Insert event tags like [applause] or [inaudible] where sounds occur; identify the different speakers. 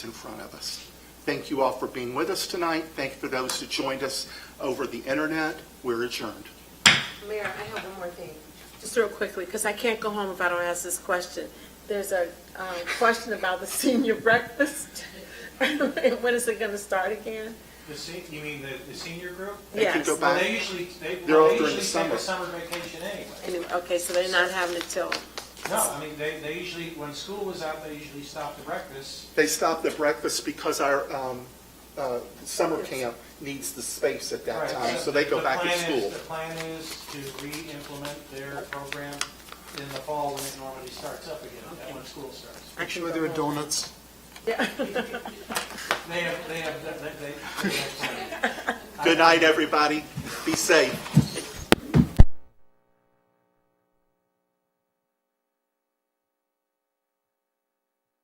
Speaker 1: in front of us. Thank you all for being with us tonight. Thank you for those who joined us over the internet. We're adjourned.
Speaker 2: Mayor, I have one more thing, just real quickly, because I can't go home if I don't ask this question. There's a um, question about the [laughs] senior breakfast. [laughs] When is it going to start again?
Speaker 3: The se, you mean the, the senior group?
Speaker 1: They can
Speaker 2: Yes.
Speaker 1: go
Speaker 3: Well,
Speaker 1: back.
Speaker 3: they usually, they,
Speaker 1: They're all
Speaker 3: well, they
Speaker 1: during the
Speaker 3: usually take
Speaker 1: summer.
Speaker 3: a summer vacation anyway.
Speaker 2: Anyway, Okay, so they're not having it till,
Speaker 3: No, I mean, they, they usually, when school was out, they usually stopped to breakfast.
Speaker 1: They stopped the breakfast because our um, uh, summer camp needs the space at that
Speaker 3: Right,
Speaker 1: time, so they go
Speaker 3: the
Speaker 1: back to
Speaker 3: plan is-
Speaker 1: school.
Speaker 3: The plan is to re-implement their program in the fall when it normally starts up again, and when school starts.
Speaker 4: Make sure there are donuts.
Speaker 2: yeah.
Speaker 3: They have, they have, they, they- they have. plans.
Speaker 1: Good night, everybody. Be safe.